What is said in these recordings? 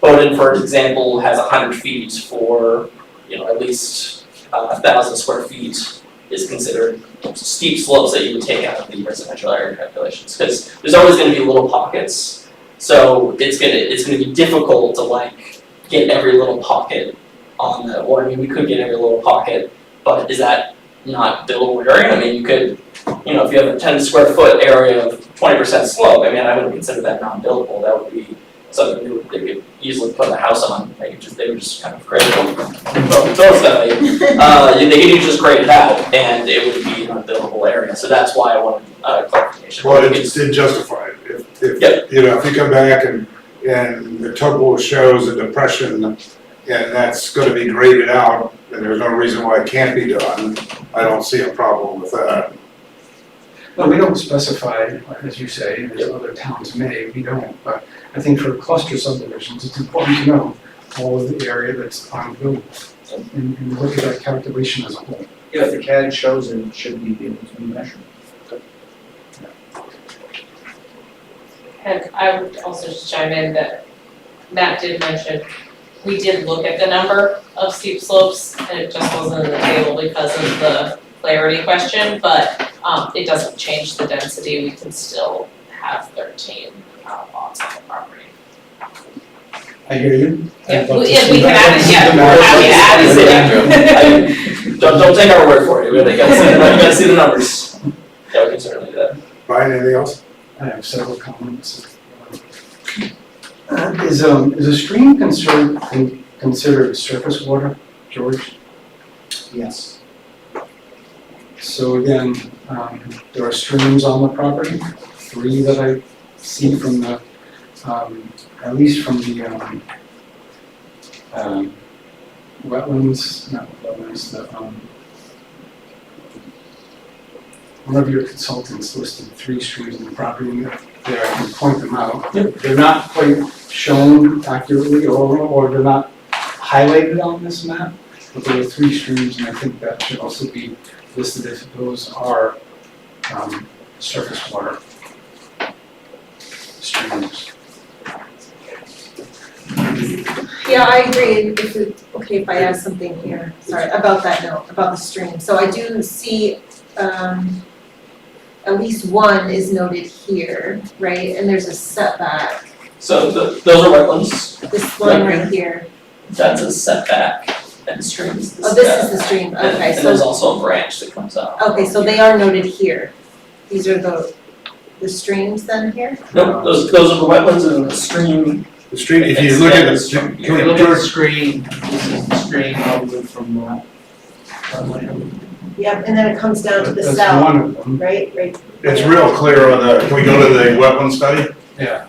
Bowden, for example, has hundred feet for, you know, at least a thousand square feet is considered steep slopes that you would take out of the residential area calculations, because there's always gonna be little pockets. So it's gonna, it's gonna be difficult to like get every little pocket on the, or I mean, we could get every little pocket, but is that not buildable area? I mean, you could, you know, if you have a ten square foot area of twenty percent slope, I mean, I wouldn't consider that non-buildable, that would be something they would, they could easily put a house on, they could just, they would just kind of grade it. But those that they, uh, they could just grade it out and it would be an unbuildable area, so that's why I wanted, uh, clarification. Well, it did justify it, if, Yep. if, you know, if you come back and, and the topo shows a depression, and that's gonna be graded out, and there's no reason why it can't be done, I don't see a problem with that. No, we don't specify, as you say, and as other towns may, we don't, but I think for cluster subdivisions, it's important to know all of the area that's unbuildable. And, and look at that calculation as a whole. If the CAD shows it, it should be able to be measured. And I would also just chime in that Matt did mention, we did look at the number of steep slopes, and it just wasn't in the table because of the clarity question, but um it doesn't change the density, we can still have thirteen uh, lots on the property. I hear you. Yeah, we, yeah, we can add it, yeah, we're happy to add I- it, Don't, don't take our word for it, we really gotta see, the- we gotta see the numbers. Yeah, we can certainly do that. Brian, anything else? I have several comments. Uh, Is, um, is a stream concern, con- considered surface water, George? Yes. So again, um, there are streams on the property, three that I see from the, um, at least from the, um, um, wetlands, not wetlands, the, um, one of your consultants listed three streams on the property, and there, I can point them out. They're not quite shown accurately, or, or they're not highlighted on this map, but there are three streams, and I think that should also be listed if those are um, surface water streams. Yeah, I agree, if we, okay, if I add something here, sorry, about that note, about the stream, so I do see, um, at least one is noted here, right, and there's a setback, So th those are wetlands, this one right here, that's a setback, and streams the oh, this is the stream, okay, And there's so, also a branch that comes out. okay, so they are noted here, these are the, the streams then here? Nope, those, those are the wetlands and the stream, The street, if you look at Extends the, from- If you look at the George, screen, this is the screen over from, uh, from land. Yep, and then it comes down to the That's south, one of them, right, right, it's real clear on the, can we go to the wetland study? yeah.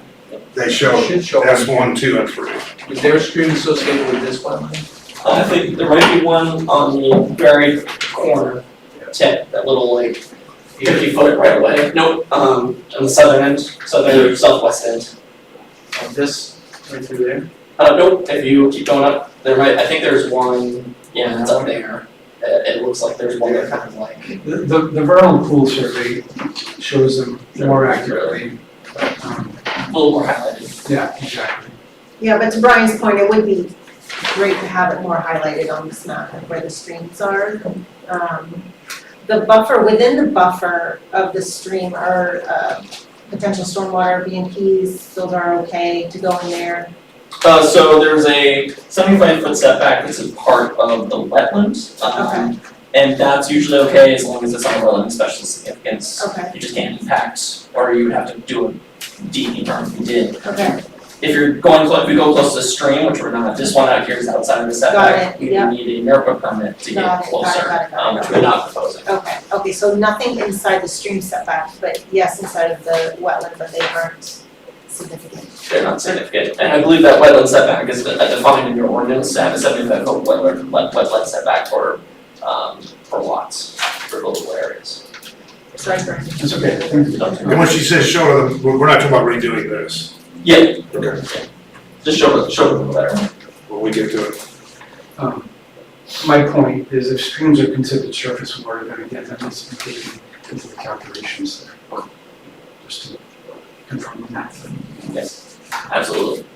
They show Should show. S one, two, and three. Is there a stream associated with this wetland? I think there might be one on the very corner tip, that little like fifty foot right away, nope, um, on the southern end, southern, southwest end. Of this, right through there? Uh, nope, if you keep going up, there might, I think there's one, yeah, it's up there. It, it looks like there's one that kind of like, The, the the vernal pool survey shows them more accurately, but, um, a little more highlighted. yeah, exactly. yeah, but to Brian's point, it would be great to have it more highlighted on this map, like where the streams are. Um, the buffer, within the buffer of the stream are, uh, potential stormwater, B and Ps, those are okay to go in there. Uh, so there's a seventy-five foot setback that's a part of the wetland, um, and that's usually okay as long as it's on a relevant special significance. Okay, You just can't impact, or you would have to do a DEP permit if you did. okay, If you're going, clo- if we go close to the stream, which we're not, this one out here is outside of the setback, it, you yeah. would need a NERPA permit to get Got it, got it, closer, got it, got um, it. which we're not proposing. okay, okay, so nothing inside the stream setback, but yes, inside of the wetland, but they aren't significant. They're not significant, and I believe that wetland setback is de- defined in your ordinance, to have a seventy-five foot wetland, wet- wetland setback for, um, for lots, for buildable areas. Sorry, Brian. It's okay, thank you. And when she says show them, we're we're not talking about redoing this, Yeah, okay, just show, it- show them the letter. when we get to it. Um, My point is if streams are considered surface water, then again, that needs to be taken into the calculations there. Just to confirm that. yes, absolutely.